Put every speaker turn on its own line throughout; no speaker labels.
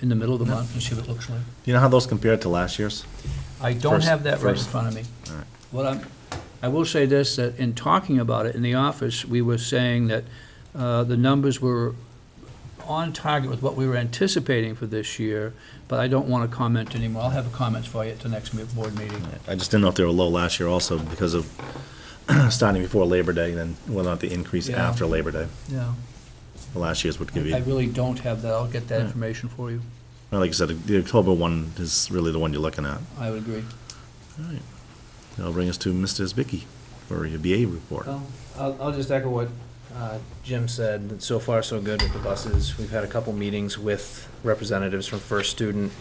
in the middle of the month and see what it looks like.
Do you know how those compare to last year's?
I don't have that right in
First-
front of me.
All right.
What I'm, I will say this, that in talking about it in the office, we were saying that uh, the numbers were on target with what we were anticipating for this year, but I don't want to comment anymore. I'll have comments for you at the next me- board meeting.
I just didn't know if they were low last year also because of starting before Labor Day, and then whether or not the increase
Yeah.
after Labor Day.
Yeah.
Last year's would give
I
you,
really don't have that. I'll get that
Yeah.
information for you.
well, like you said, the October one is really the one you're looking at.
I would agree.
That'll bring us to Mr. Zbicki for your BA report.
Oh.
Well, I'll, I'll just echo what uh, Jim said, that so far so good with the buses. We've had a couple meetings with representatives from First Student,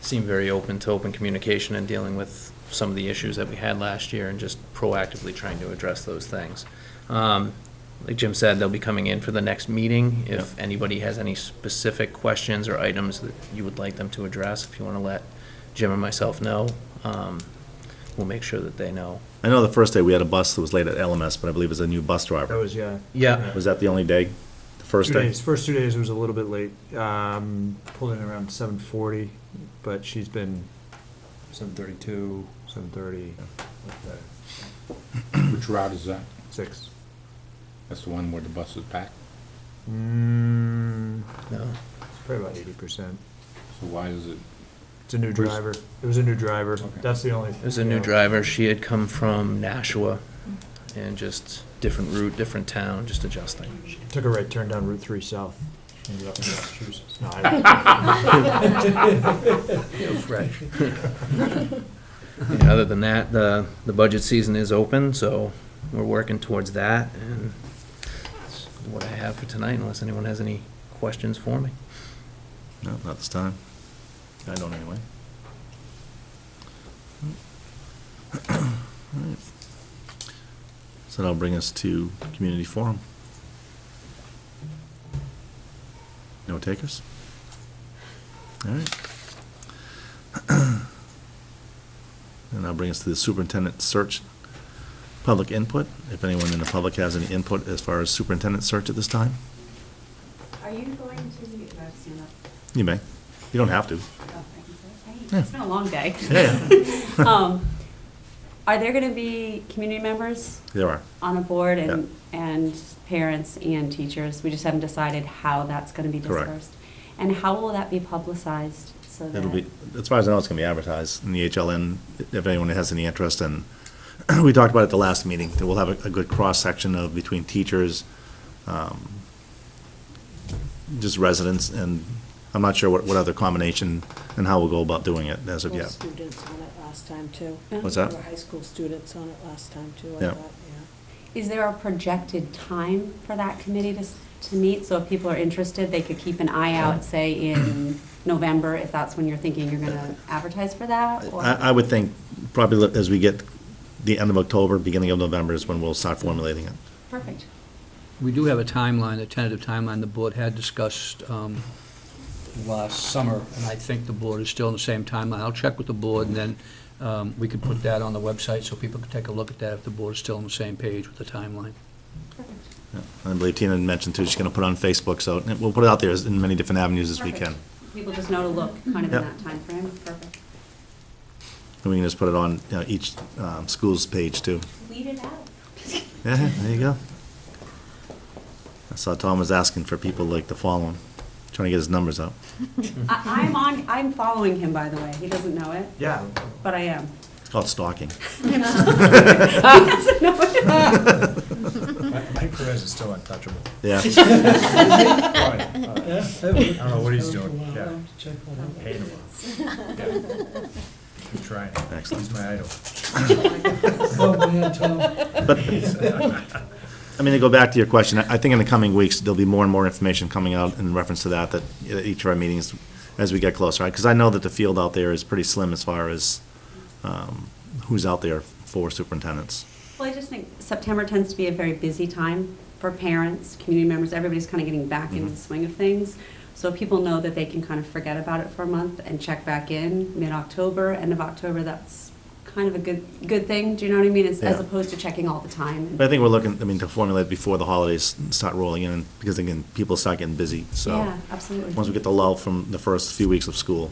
seem very open to open communication and dealing with some of the issues that we had last year and just proactively trying to address those things. Um, Like Jim said, they'll be coming in for the next meeting. If anybody has any specific questions or items that you would like them to address, if you want to let Jim and myself know, um, we'll make sure that they know.
I know the first day we had a bus that was late at LMS, but I believe it was a new bus
That
driver.
was, yeah.
Yeah,
Was that the only day? The first
Two
day?
days, first two days was a little bit late, um, pulled in around seven forty, but she's been seven thirty-two, seven thirty,
Which route is that?
six.
That's the one where the bus is packed?
Mm,
no.
it's probably about eighty percent.
So why is it?
It's a new
Where's-
driver. It was a new driver.
Okay.
That's the only.
It was a new driver. She had come from Nashua and just different route, different town, just adjusting.
Took a right turn down Route Three South. Ended up in Massachusetts. No, I,
And Other than that, the, the budget season is open, so we're working towards that. And that's what I have for tonight, unless anyone has any questions for me.
No, not this time. I don't anyway. Alright. So that'll bring us to community forum. No takers? All right. And that'll bring us to the superintendent search, public input. If anyone in the public has any input as far as superintendent search at this time,
Are you going to the, no, it's not,
you may. You don't have to.
oh, I can say
Yeah.
it. Hey, It's been a long day.
Yeah.
Um, Are there going to be community members
There are.
on a board and, and parents and teachers? We just haven't decided how that's going to be
Correct.
dispersed. And how will that be publicized so that?
It'll be, as far as I know, it's gonna be advertised in the HLN, if anyone has any interest, and we talked about it at the last meeting, that we'll have a, a good cross-section of between teachers, um, just residents, and I'm not sure what, what other combination and how we'll go about doing it as of
High school
yet.
students on it last time, too.
Yeah.
What's that?
There were high school students on it last time, too, I
Yeah.
thought, yeah.
Is there a projected time for that committee to, s- to meet? So if people are interested, they could keep an eye out, say, in November, if that's when you're thinking you're going to advertise for that? or-
I, I would think probably let- as we get the end of October, beginning of November is when we'll start formulating it.
Perfect.
We do have a timeline, a tentative timeline the board had discussed um, last summer, and I think the board is still in the same timeline. I'll check with the board, and then um, we can put that on the website so people can take a look at that if the board is still on the same page with the timeline.
Yeah. I believe Tina had mentioned too, she's gonna put it on Facebook, so we'll put it out there as- in many different avenues as we
Perfect.
can.
People just know to look kind of in
Yep.
that timeframe. Perfect.
And we can just put it on, you know, each, um, school's page too.
Weed it out.
Yeah, there you go. I saw Tom was asking for people like to follow him, trying to get his numbers up. Mm-hmm.
I, I'm on, I'm following him, by the way. He doesn't know it,
yeah,
but I am.
It's called stalking.
He doesn't know it.
Mike Perez is still untouchable.
Yeah,
I don't know what he's doing, yeah. Hate him. Yeah. Keep trying.
Excellent.
He's my idol.
but,
uh,
I mean, to go back to your question, I I think in the coming weeks, there'll be more and more information coming out in reference to that, that at each of our meetings, as we get closer, because I know that the field out there is pretty slim as far as, um, who's out there for superintendents.
Well, I just think September tends to be a very busy time for parents, community members, everybody's kind of getting back into the
Mhm.
swing of things. So people know that they can kind of forget about it for a month and check back in mid-October, end of October, that's kind of a good, good thing, do you know what I mean? As as
Yeah.
opposed to checking all the time.
But I think we're looking, I mean, to formulate before the holidays start rolling in, because again, people start getting busy, so.
Yeah, absolutely.
Once we get the lull from the first few weeks of school.